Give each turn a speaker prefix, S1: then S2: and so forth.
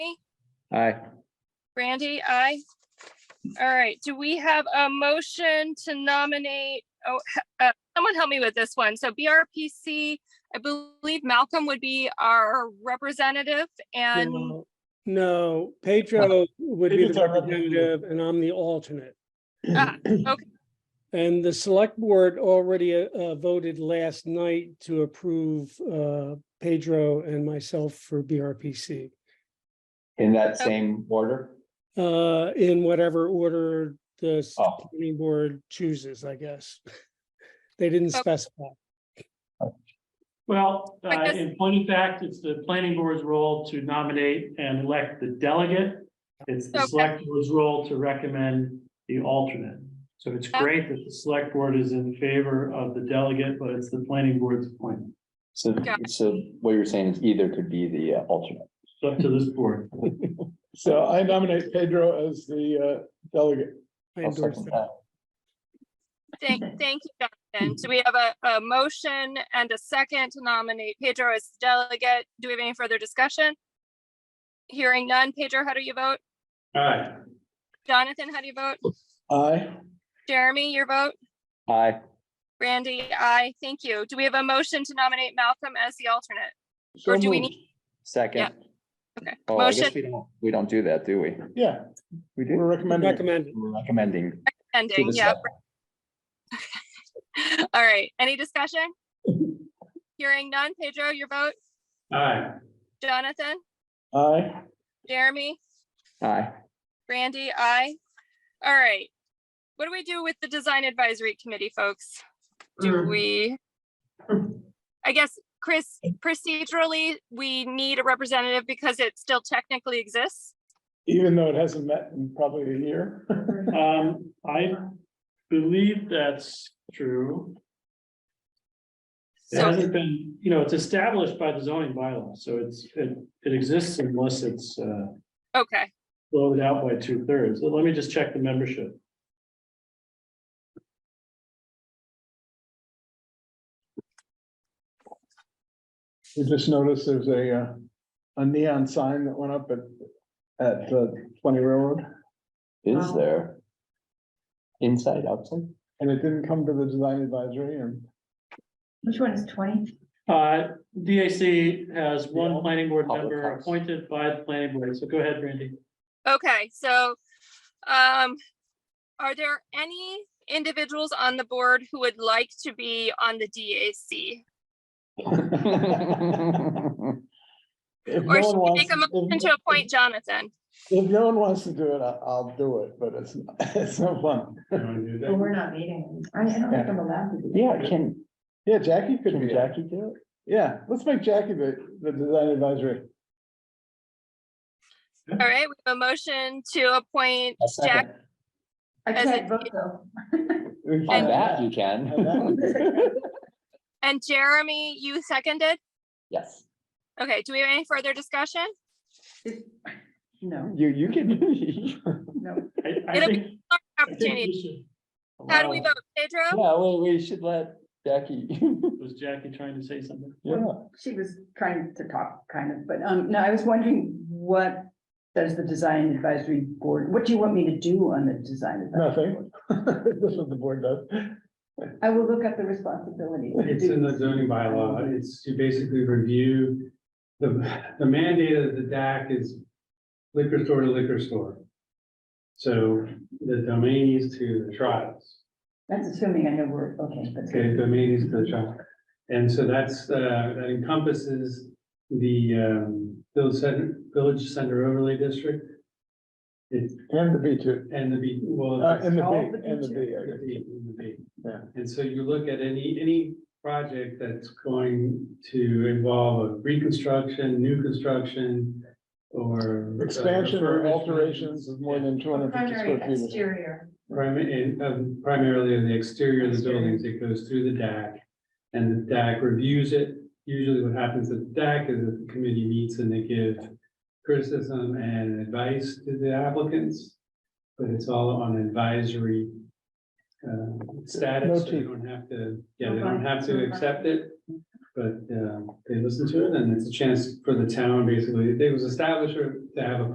S1: Aye.
S2: Brandy, aye. All right, do we have a motion to nominate, oh, he- uh, someone help me with this one. So BRPC, I believe Malcolm would be our representative and,
S3: No, No, Pedro would be
S4: Pedro's
S3: the
S4: our representative.
S3: representative and I'm the alternate.
S2: ah, okay,
S3: And the select board already uh, uh, voted last night to approve uh, Pedro and myself for BRPC.
S1: In that same order?
S3: uh, In whatever order the s-
S1: Oh.
S3: planning board chooses, I guess. They didn't
S2: Oh.
S3: specify.
S4: Well,
S2: I
S4: uh,
S2: guess-
S4: in point of fact, it's the planning board's role to nominate and elect the delegate. It's the
S2: Okay.
S4: select board's role to recommend the alternate. So it's
S2: Okay.
S4: great that the select board is in favor of the delegate, but it's the planning board's appointment.
S1: So,
S2: Yeah.
S1: so what you're saying is either could be the uh, alternate.
S4: It's up to this board.
S5: So I nominate Pedro as the uh, delegate.
S3: I
S1: I'll
S3: endorse
S1: second
S3: that.
S1: that.
S2: thank, thank you, Jonathan. So we have a, a motion and a second to nominate Pedro as delegate. Do we have any further discussion? Hearing none. Pedro, how do you vote?
S4: All right.
S2: Jonathan, how do you vote?
S5: Aye.
S2: Jeremy, your vote?
S1: Aye.
S2: Brandy, I Thank you. Do we have a motion to nominate Malcolm as the alternate?
S5: So
S2: Or do we
S5: moved.
S1: Second.
S2: Okay.
S1: Oh, I guess
S2: Motion.
S1: we don't, we don't do that, do we?
S5: Yeah,
S1: We do.
S5: we're recommending. it.
S3: Recommended.
S1: We're recommending. to
S2: Ending,
S1: the
S2: yeah.
S1: select-
S2: All right. Any discussion? Hearing none. Pedro, your vote.
S4: All right.
S2: Jonathan,
S5: Aye.
S2: Jeremy,
S1: Aye.
S2: Brandy, I. All right. What do we do with the design advisory committee, folks? Do
S4: Um,
S2: we? I guess, Chris, procedurally, we need a representative because it still technically exists.
S5: Even though it hasn't met in probably a year.
S4: Um, I believe that's true. It
S2: So
S4: hasn't been, you know, it's established by the zoning bylaw, so it's, it, it exists unless it's, uh,
S2: Okay,
S4: blow it out by two thirds. Let me just check the membership.
S5: We just noticed there's a, uh, a neon sign that went up at, at uh, Twenty Railroad,
S1: Is there? Inside, outside?
S5: and it didn't come to the design advisory and
S6: Which one is twenty?
S4: Uh, DAC has one
S5: Yeah.
S4: planning board
S1: Public
S4: member
S1: house.
S4: appointed by the planning board, so go ahead, Randy.
S2: okay, so, um, are there any individuals on the board who would like to be on the DAC?
S5: if
S2: Or should
S5: no one
S2: we
S5: wants.
S2: make a motion
S5: if-
S2: to appoint Jonathan?
S5: If no one wants to do it, I- I'll do it, but it's, it's no fun.
S6: But we're not meeting. I I don't think I'm allowed to. be.
S1: Yeah, can,
S5: Yeah, Jackie could
S1: can
S5: be.
S1: Jackie do it?
S5: Yeah, let's make Jackie the, the design advisory.
S2: All right, we have a motion to appoint
S1: A
S2: Jack.
S1: second.
S6: I
S2: As
S6: can't vote though.
S5: We
S1: On
S5: can-
S1: that, you
S5: on
S1: can.
S5: that.
S2: And Jeremy, you seconded?
S1: Yes.
S2: Okay, do we have any further discussion?
S6: No,
S1: You, you can.
S6: no.
S4: I, I
S2: It'll be-
S4: think, I think
S2: Opportunity.
S4: we should-
S2: How do we
S1: Wow.
S2: vote?
S5: uh,
S2: Pedro?
S1: Yeah, well, we should let Jackie.
S4: was Jackie trying to say something?
S5: Yeah.
S6: She was trying to talk kind of, but um, no, I was wondering what does the design advisory board, what do you want me to do on the design? advisory board?
S5: Nothing. That's what the board does.
S6: I will look up the responsibilities.
S7: It's in the zoning bylaw. It's to basically review the, the mandate of the DAC is liquor store to liquor store. So the domain is to the tribes,
S6: That's assuming I know we're, okay, that's
S7: okay,
S6: good.
S7: domain is to the tribe. And so that's, uh, that encompasses the, um, village center, village center overlay district. It,
S5: And the B two,
S7: and the, B- well.
S5: uh, and the
S6: All
S5: B,
S6: the
S5: and the B. I
S7: The
S5: guess.
S7: B, the B.
S5: Yeah.
S7: And so you look at any, any project that's going to involve a reconstruction, new construction, or. uh,
S5: Expansion or
S7: refurbishment.
S5: alterations of more than two hundred fifty square feet.
S6: exterior.
S7: Primi- and, um, Primarily in the exterior of the buildings, it goes through the DAC. And the DAC reviews it. Usually what happens at the DAC is that the committee meets and they give criticism and advice to the applicants. But it's all on advisory uh,
S5: No
S7: status, so you
S5: teeth.
S7: don't have to, yeah, they don't have to accept it. uh, But um, they listen to it and it's a chance for the town basically, it was established to have a